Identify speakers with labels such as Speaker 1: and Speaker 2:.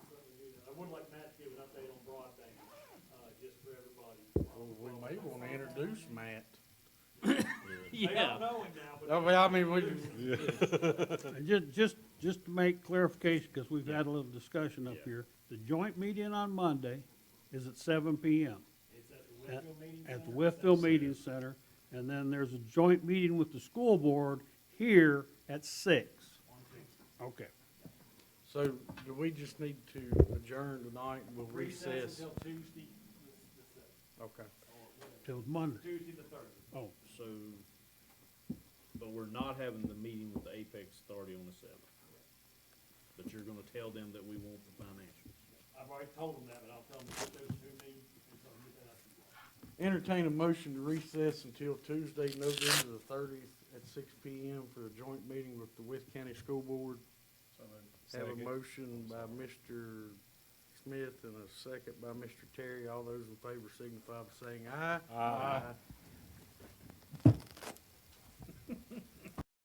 Speaker 1: uh,
Speaker 2: Oh, Well, we may wanna introduce Matt.
Speaker 1: They don't
Speaker 3: Yeah,
Speaker 1: know him now, but.
Speaker 2: I mean, I mean, we,
Speaker 4: And ju- Uh, just, just to make clarification, because we've had a little discussion up
Speaker 1: Yeah.
Speaker 4: here, the joint meeting on Monday is at seven PM
Speaker 1: It's at the Whitfield Meeting
Speaker 4: at the
Speaker 1: Center.
Speaker 4: Westfield Meeting Center, and then there's a joint meeting with the school board here at six. Okay.
Speaker 2: so do we just need to adjourn tonight? We'll
Speaker 1: Recess
Speaker 2: recess.
Speaker 1: until Tuesday, the- the third,
Speaker 2: Okay.
Speaker 1: or whatever,
Speaker 4: Till Monday.
Speaker 1: Tuesday the third.
Speaker 4: Oh,
Speaker 3: so, but we're not having the meeting with the Apex Authority on the seventh. But you're gonna tell them that we want the financials.
Speaker 1: I've already told them that, but I'll tell them to put those two meetings, and so I'll get that out to you.
Speaker 2: Entertain a motion to recess until Tuesday, November the thirtieth at six P M for a joint meeting with the West County School Board. Have a motion by Mr. Smith and a second by Mr. Terry. All those in favor signify by saying aye. Aye.